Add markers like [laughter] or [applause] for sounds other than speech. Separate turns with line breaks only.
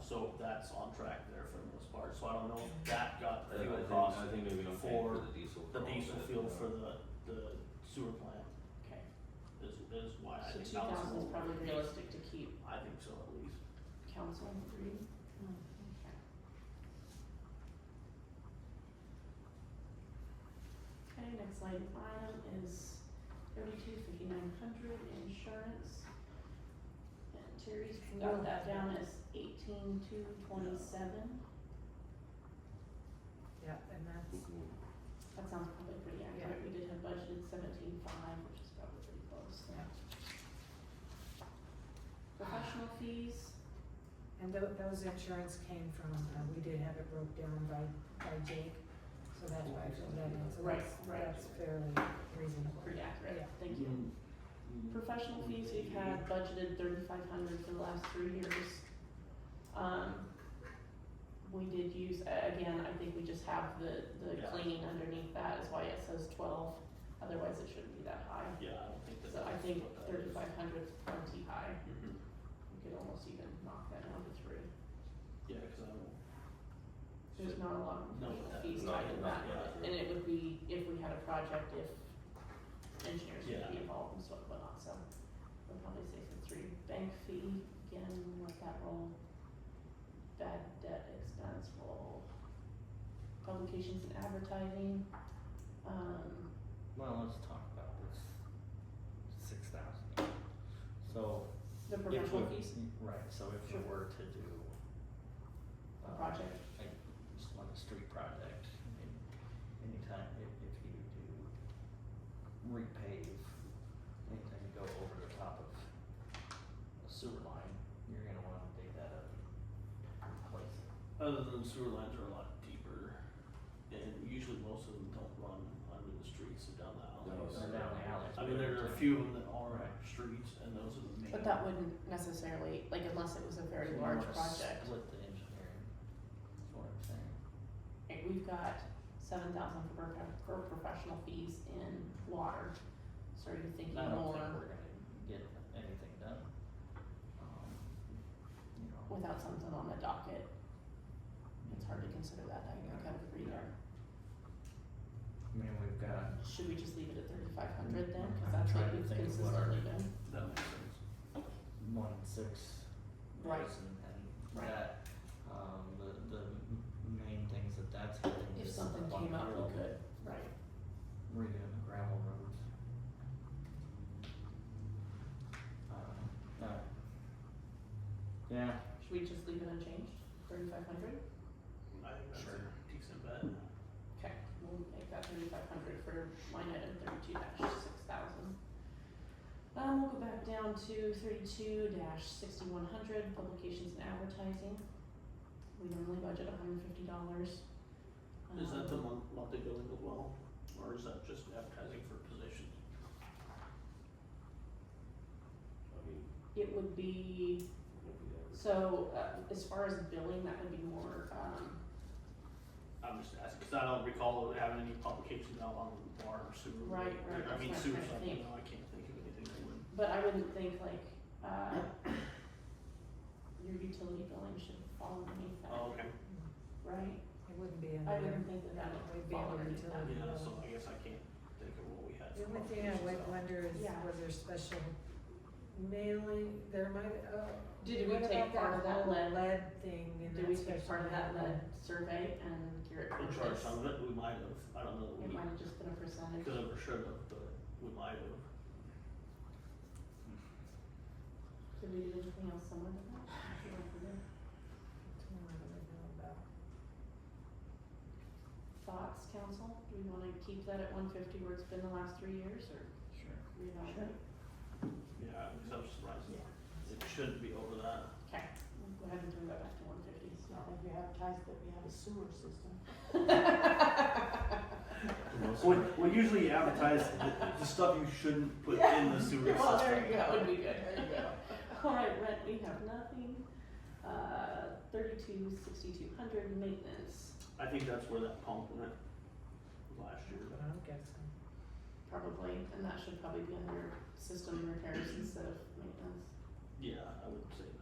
so that's on track there for the most part, so I don't know if that got the
I think, I
fuel
think,
cost,
I think maybe don't pay for
for
the diesel.
the
for all
diesel
of it,
fuel
uh,
for the, the sewer plant.
Okay,
Is, is why I
so
think
two
that was a
thousand is
little-
probably realistic to keep
I think so at least.
council agreed? Mm, Okay, next line item is thirty-two fifty-nine hundred insurance. And Terry's got that down as eighteen two twenty-seven,
Yeah, and that's,
mhm.
that sounds probably pretty accurate, we did have budgeted seventeen five, which is probably pretty close, so.
Yeah.
Professional fees,
and tho- those insurance came from, uh, we did have it broke down by, by Jake, so that's why I filled that in, so
Right,
that's,
right.
that's fairly reasonable.
pretty accurate,
Yeah.
thank you.
Mm-hmm.
Mm-hmm.
Professional fees, we've had budgeted thirty-five hundred for the last three years. Um, we did use, a- again, I think we just have the, the
Yeah.
cleaning underneath that is why it says twelve, otherwise it shouldn't be that high.
Yeah, I don't think that.
So I
that's
think
what that is.
thirty-five hundred is plenty high,
Mhm.
we could almost even knock that down to three,
Yeah, cause I don't.
there's not a lot of
No, uh,
professional
that-
fees
not-
tied to that.
not- yeah.
And it would be if we had a project, if engineers would be
Yeah.
involved and so whatnot, so we'll probably say for three. Bank fee, again, let that roll. Bad debt expense roll. Publications and advertising, um,
Well, let's talk about this six thousand. So
the
if we,
professional fees,
right, so if
Sure.
we were to do.
A
um,
project.
Like, just on the street project, I mean, anytime, if, if you do repave, anytime you go over the top of a sewer line, you're gonna wanna dig that up and replace it.
Other than sewer lines are a lot deeper, and usually most of them don't run under the streets or down the alleys.
Or down the alleys.
I mean, there are a few of them that are streets, and those are the main.
but that wouldn't necessarily, like unless it was a very
So you
large
wanna
project.
Split the engineering, is what I'm saying.
Right, we've got seven thousand for, prof- for professional fees in water, started thinking
I don't think
more
we're gonna get anything done. Um, You know,
without something on the docket, it's hard to consider that, I think, kind of agree there.
I mean, we've got,
Should we just leave it at thirty-five hundred then,
I'm
cause that's
trying
what
to
we've
think of what our-
consistently done?
That makes sense.
one six
Right.
years and and
Right.
that, um, the the m- main things that that's hitting
If
is
something
up on
came
the
up,
hill,
we could, right,
Redoing the gravel roads. Um, no. Yeah,
should we just leave it unchanged, thirty-five hundred?
I think that's
Sure.
a decent bet.
Okay, we'll make that thirty-five hundred for line item thirty-two six thousand. Um, we'll go back down to thirty-two sixty-one hundred, publications and advertising. We normally budget hundred and fifty dollars. Um,
Is that the
Uh-huh.
month, monthly billing as well, or is that just advertising for positions?
I mean,
It would be,
it'll be there.
so, uh, as far as billing, that would be more, um,
I'm just asking, cause I don't recall having any publications out on water or sewer.
Right, right,
I mean,
that's
sewer,
what I'm
so I
trying
don't
to think.
know, I can't think of anything that would.
But I wouldn't think like, uh, your utility billing should fall underneath that,
okay.
right?
It wouldn't be in
I
there.
wouldn't think that that
It
would
would be
fall
under
underneath that.
utility.
Yeah, so I guess I can't think of what we had.
The
for
only thing I
publications
would
out.
wonder is,
Yeah.
was there special mailing, there might, oh,
Did we
what
take
about
part
that
of that
whole
lead?
lead thing and
Did we take
that special
part of that lead
mailing?
survey and Garrett
We
Curtis?
charged some of it, we might have, I don't know, that
It
we
might have just been a percentage.
could have or should have, but we might have.
Did we do anything else similar to that? I feel like we did.
That's one I really know about.
Thoughts, council? Do we wanna keep that at one fifty where it's been the last three years or
sure.
reevaluate?
Yeah, because I was surprised, it shouldn't be over that.
Okay, we'll go ahead and turn that back to one fifty.
Not like we advertise that we have a sewer system.
[laughs]
[laughs]
Well, well, usually you advertise the, the stuff you shouldn't put in the sewer
[laughs] Well,
system.
there you go. That would be good. There you go. Alright, rent, we have nothing. Uh, thirty-two, sixty-two hundred, maintenance,
I think that's where that pump went last year.
But I'm guessing.
probably, and that should probably be under system repairs instead of maintenance.
Yeah, I would say